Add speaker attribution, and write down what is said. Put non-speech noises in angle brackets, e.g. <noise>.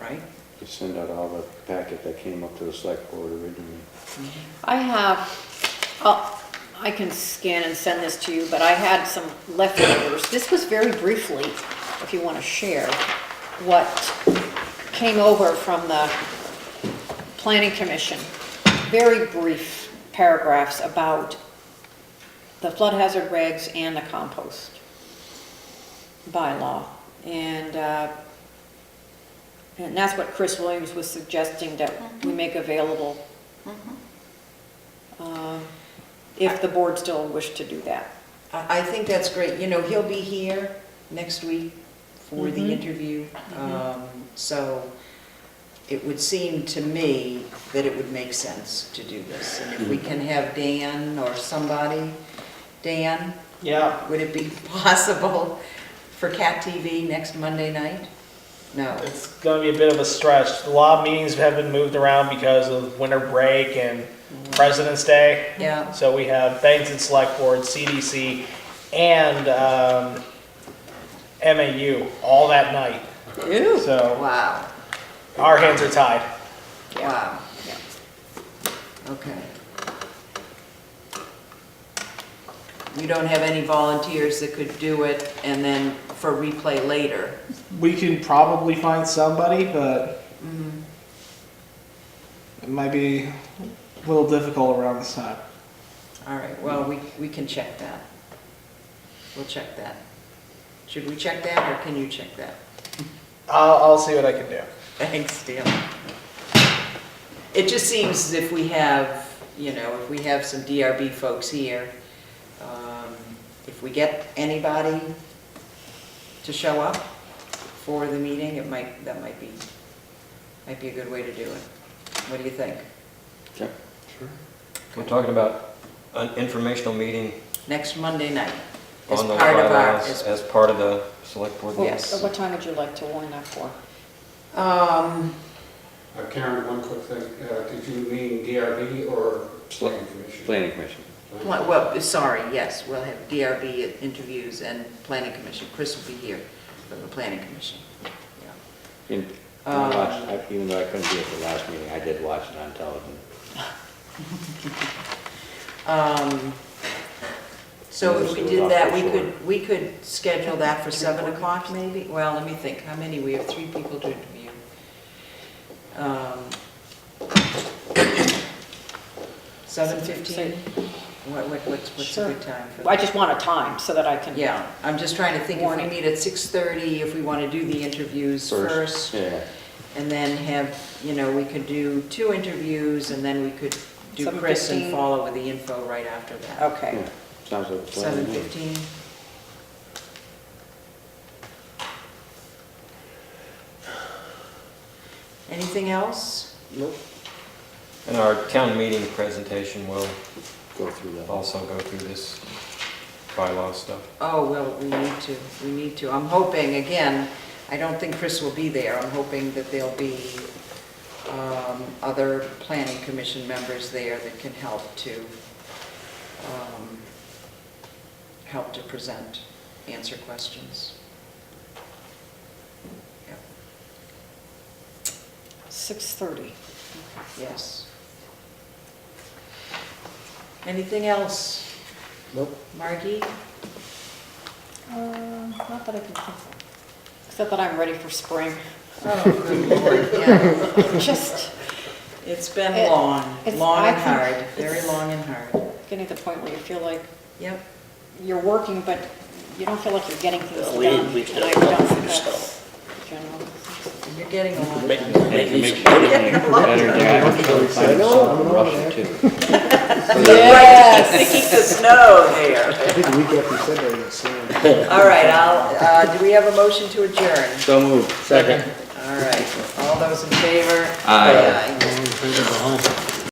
Speaker 1: right?
Speaker 2: to send out all the packet that came up to the select board originally.
Speaker 3: I have, oh, I can scan and send this to you, but I had some leftovers. This was very briefly, if you want to share, what came over from the planning commission. Very brief paragraphs about the flood hazard regs and the compost bylaw. And, uh, and that's what Chris Williams was suggesting that we make available uh, if the board still wished to do that.
Speaker 1: I, I think that's great, you know, he'll be here next week for the interview, um, so it would seem to me that it would make sense to do this, and if we can have Dan or somebody, Dan,
Speaker 4: Yeah,
Speaker 1: would it be <laughs> possible for Cat TV next Monday night? No,
Speaker 4: it's gonna be a bit of a stretch. A lot of meetings have been moved around because of winter break and President's Day.
Speaker 1: yeah,
Speaker 4: So we have Banks and Select Board, CDC, and um, MAU all that night. So
Speaker 1: wow,
Speaker 4: our hands are tied.
Speaker 1: wow, okay. You don't have any volunteers that could do it and then for replay later?
Speaker 4: We can probably find somebody, but
Speaker 1: Mm-hmm.
Speaker 4: it might be a little difficult around this time.
Speaker 1: All right, well, we, we can check that. We'll check that. Should we check that, or can you check that?
Speaker 4: I'll, I'll see what I can do.
Speaker 1: Thanks, Dan. It just seems as if we have, you know, if we have some DRB folks here, um, if we get anybody to show up for the meeting, it might, that might be, might be a good way to do it. What do you think?
Speaker 2: Okay.
Speaker 5: We're talking about an informational meeting
Speaker 1: Next Monday night, as
Speaker 5: on those
Speaker 1: part of our,
Speaker 5: bylaws
Speaker 1: as
Speaker 5: as part of the select board.
Speaker 3: Well,
Speaker 5: meeting.
Speaker 1: Yes.
Speaker 3: What time would you like to warn that for?
Speaker 1: Um,
Speaker 6: Uh, Karen, one quick thing, Uh, did you mean DRB or planning commission?
Speaker 2: Planning commission.
Speaker 1: Well, well, sorry, yes, we'll have DRB interviews and planning commission. Chris will be here from the planning commission. Yeah.
Speaker 2: In- I
Speaker 1: Um,
Speaker 2: watched- I- Even though I couldn't be at the last meeting, I did watch it on television.
Speaker 1: Um, So if we did that, we could, we could schedule that for 7 o'clock maybe? Well, let me think, how many? We have three people to interview. Um, 7:15? What, what, what's what's a good time for that?
Speaker 3: I just want a time so that I can.
Speaker 1: Yeah, I'm just trying to think, if we
Speaker 3: Morning.
Speaker 1: meet at 6:30, if we want to do the interviews first.
Speaker 2: Yeah.
Speaker 1: And then have, you know, we could do two interviews, and then we could do
Speaker 3: Seven
Speaker 1: Chris and
Speaker 3: fifteen.
Speaker 1: follow with the info right after that.
Speaker 3: Okay.
Speaker 2: Yeah. Sounds like a plan. to
Speaker 1: Seven
Speaker 2: me.
Speaker 1: fifteen? Anything else?
Speaker 2: Nope.
Speaker 5: And our town meeting presentation will
Speaker 2: Go through that.
Speaker 5: also go through this bylaw stuff.
Speaker 1: Oh, well, we need to, we need to. I'm hoping, again, I don't think Chris will be there. I'm hoping that there'll be um, other planning commission members there that can help to, um, help to present, answer questions. Yep,
Speaker 3: 6:30.
Speaker 1: Yes. Anything else?
Speaker 2: Nope.
Speaker 1: Margie?
Speaker 3: Um, Not that I can think of. Except that I'm ready
Speaker 1: <laughs>
Speaker 3: for spring.
Speaker 1: Oh, good lord, yeah.
Speaker 3: Just
Speaker 1: It's been
Speaker 3: It-
Speaker 1: long,
Speaker 3: it's-
Speaker 1: long
Speaker 3: I
Speaker 1: and
Speaker 3: think
Speaker 1: hard, very
Speaker 3: it's-
Speaker 1: long and hard.
Speaker 3: getting to the point where you feel like
Speaker 1: Yep.
Speaker 3: you're working, but you don't feel like you're getting things done. And I don't think that's general.
Speaker 1: You're getting a lot
Speaker 7: Make-
Speaker 1: done.
Speaker 7: make me-
Speaker 1: Getting a lot
Speaker 2: Better
Speaker 1: done.
Speaker 2: than I was trying to find some in Russia too.
Speaker 1: To
Speaker 3: Yes.
Speaker 1: keep the snow there. I think the week after Sunday, All right, I'll, uh, do we have a motion to adjourn?
Speaker 2: So moved.
Speaker 1: All right, all those in favor? Aye.